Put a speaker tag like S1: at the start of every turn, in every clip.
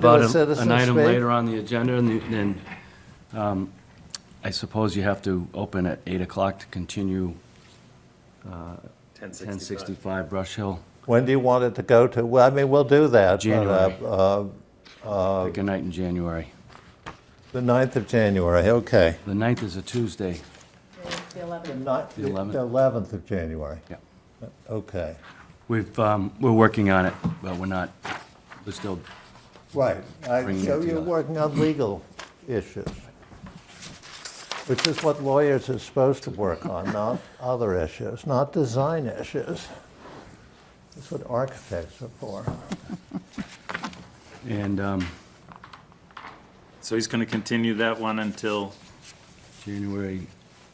S1: about
S2: a
S1: an-
S2: citizen's
S1: an item
S2: meeting?
S1: later on the agenda, and the- then um, I suppose you have to open at 8 o'clock to continue 1065 Brush Hill.
S2: When do you want it to go to? Well, I mean, we'll do that. but,
S1: January.
S2: uh, uh,
S1: Pick a night in January.
S2: The 9th of January, okay.
S1: The 9th is a Tuesday.
S3: The 11th.
S2: Not,
S1: The 11th.
S2: 11th of January,
S1: Yeah.
S2: okay.
S1: We've, um, we're working on it, but we're not, we're still,
S2: Right, I-
S1: Bringing
S2: so
S1: it
S2: you're
S1: together.
S2: working on legal issues, which is what lawyers are supposed to work on, not other issues, not design issues. That's what architects are for.
S1: and um,
S4: So he's gonna continue that one until,
S1: January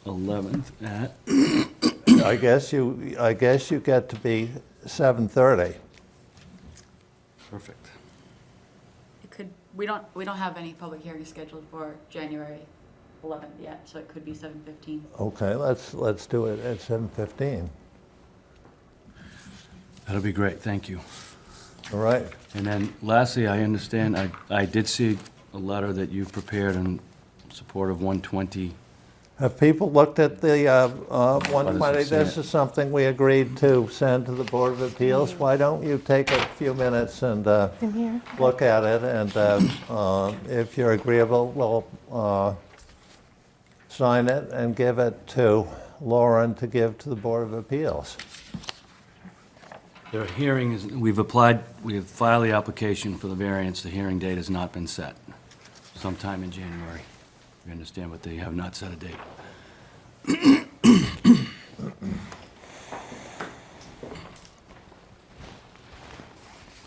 S1: 11th at,
S2: I guess you, I guess you get to be 7:30.
S1: perfect.
S3: It could, we don't, we don't have any public hearings scheduled for January 11th yet, so it could be 7:15.
S2: Okay, let's, let's do it at 7:15.
S1: That'll be great, thank you.
S2: All right,
S1: And then lastly, I understand, I, I did see a letter that you've prepared in support of 120
S2: have people looked at the uh, uh, 120?
S1: Others have
S2: This
S1: seen it.
S2: is something we agreed to send to the Board of Appeals.
S5: Mm-hmm.
S2: Why don't you take a few minutes and uh, look at it, and uh, uh, if you're agreeable, we'll uh, sign it and give it to Lauren to give to the Board of Appeals.
S1: Their hearing is, we've applied, we have filed the application for the variance, the hearing date has not been set. Sometime in January, you understand, but they have not set a date.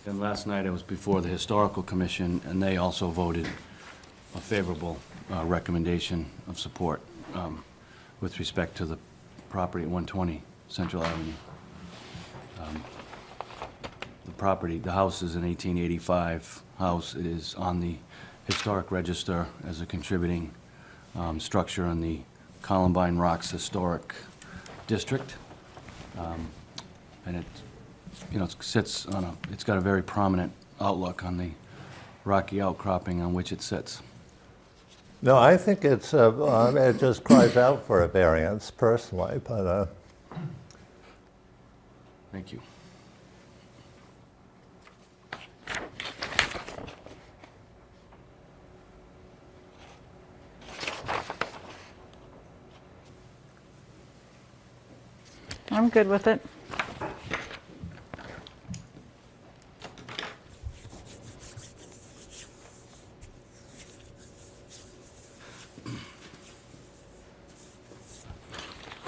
S1: And last night, I was before the Historical Commission, and they also voted a favorable uh, recommendation of support um, with respect to the property at 120 Central Avenue the property, the house is an 1885 house. It is on the historic register as a contributing um, structure in the Columbine Rocks Historic District. Um, And it, you know, it sits on a, it's got a very prominent outlook on the rocky outcropping on which it sits.
S2: No, I think it's, uh, uh, it just cries out for a variance personally, but uh,
S1: Thank you.
S5: I'm good with it.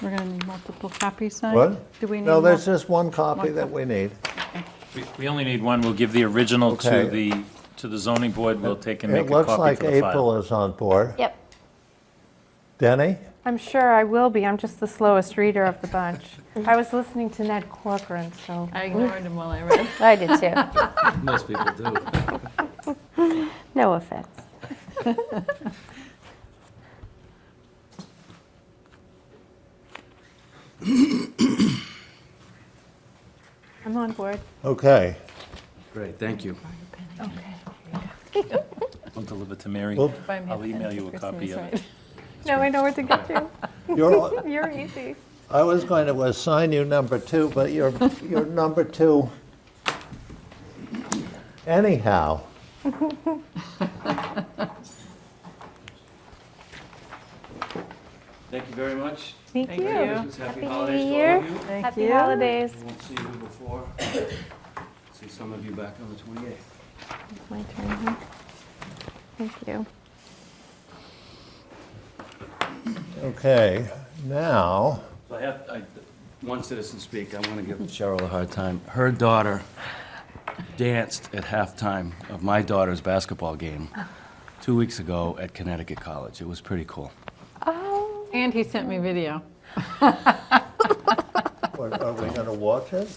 S5: We're gonna need multiple copies signed?
S2: what?
S5: Uh, Do we need?
S2: No, there's
S5: mul-
S2: just one copy
S5: one
S2: that
S5: copy.
S2: we need.
S4: we- we only need one, we'll give the original
S2: Okay.
S4: to the, to the zoning board, we'll take and make
S2: It
S4: a
S2: looks
S4: copy
S2: like
S4: for the
S2: April
S4: file.
S2: is on board.
S6: Yep,
S2: Denny?
S6: I'm sure I will be. I'm just the slowest reader of the bunch. I was listening to Ned Corcoran, so
S5: I ignored him while I read.
S6: I did too.
S1: Most people do.
S6: No offense. I'm on board.
S2: Okay.
S1: Great, thank you.
S4: I'll deliver to Mary,
S2: Well-
S4: I'll email you a copy of it.
S6: Now I know where to get to.
S2: You're,
S6: You're easy.
S2: I was going to assign you number two, but you're, you're number two anyhow.
S1: Thank you very much.
S6: Thank you.
S1: Happy holidays to
S6: New
S1: all
S6: Year.
S1: of you.
S5: Thank
S6: Happy
S5: you.
S6: holidays.
S1: We won't see you before. See some of you back on the 28th.
S6: It's my turn. huh? Thank you.
S2: Okay, now,
S1: So I have, I, one citizen speak, I want to give Cheryl a hard time. Her daughter danced at halftime of my daughter's basketball game two weeks ago at Connecticut College. It was pretty cool.
S6: Oh,
S5: And he sent me video.
S2: what, are we going to watch it?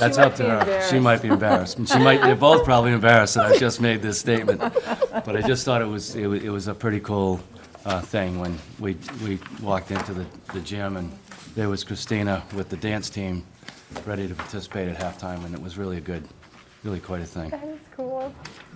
S1: That's up to her. She might be embarrassed. And She might, they're both probably embarrassed that I just made this statement. But I just thought it was, it wa- it was a pretty cool uh, thing when we, we walked into the the gym and there was Christina with the dance team ready to participate at halftime and it was really a good, really quite a thing.
S6: that is cool.